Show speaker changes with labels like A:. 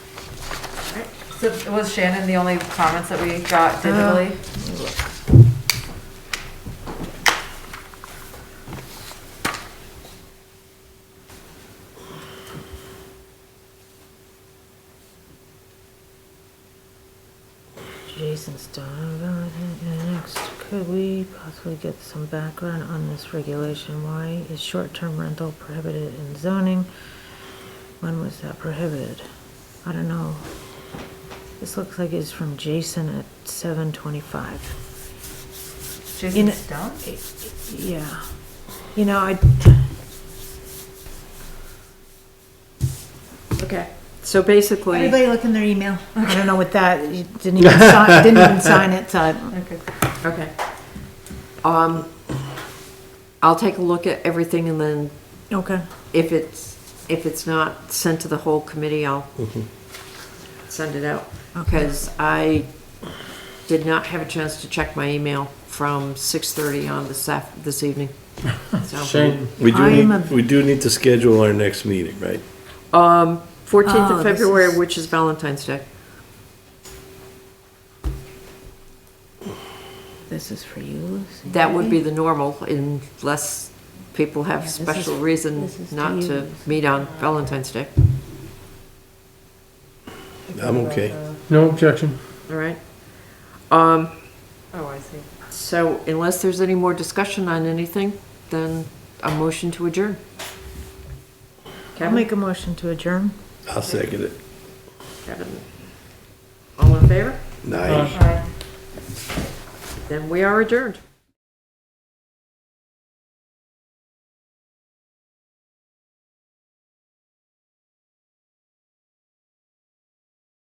A: So was Shannon the only comments that we got digitally?
B: Jason's dog. Next, could we possibly get some background on this regulation? Why is short-term rental prohibited in zoning? When was that prohibited? I don't know. This looks like it's from Jason at seven twenty-five.
A: Jason
B: In-
A: Stone?
B: Yeah. You know, I.
C: Okay, so basically,
B: Everybody look in their email. I don't know what that, you didn't even sign, didn't even sign it, so I don't-
A: Okay.
C: okay. Um, I'll take a look at everything and then
B: Okay.
C: if it's, if it's not sent to the whole committee, I'll send it out.
B: Okay.
C: Because I did not have a chance to check my email from 6:30 on this af, this evening. So-
D: Shane, we do
B: I am
D: need,
B: a-
D: we do need to schedule our next meeting, right?
C: Um, 14th
B: Oh,
C: of
B: this
C: February,
B: is-
C: which is Valentine's Day.
B: This is for you, Lucy.
C: That would be the normal unless people
B: Yeah,
C: have
B: this
C: special
B: is-
C: reason
B: this is
C: not
B: to
C: to
B: use.
C: meet on Valentine's Day,
D: I'm okay.
E: No objection.
C: all right? Um,
A: Oh, I see.
C: so unless there's any more discussion on anything, then a motion to adjourn.
B: I'll
C: Kevin,
B: make a motion to adjourn.
D: I'll second it.
C: Kevin. All in favor?
D: Nice.
A: All right.
C: Then we are adjourned.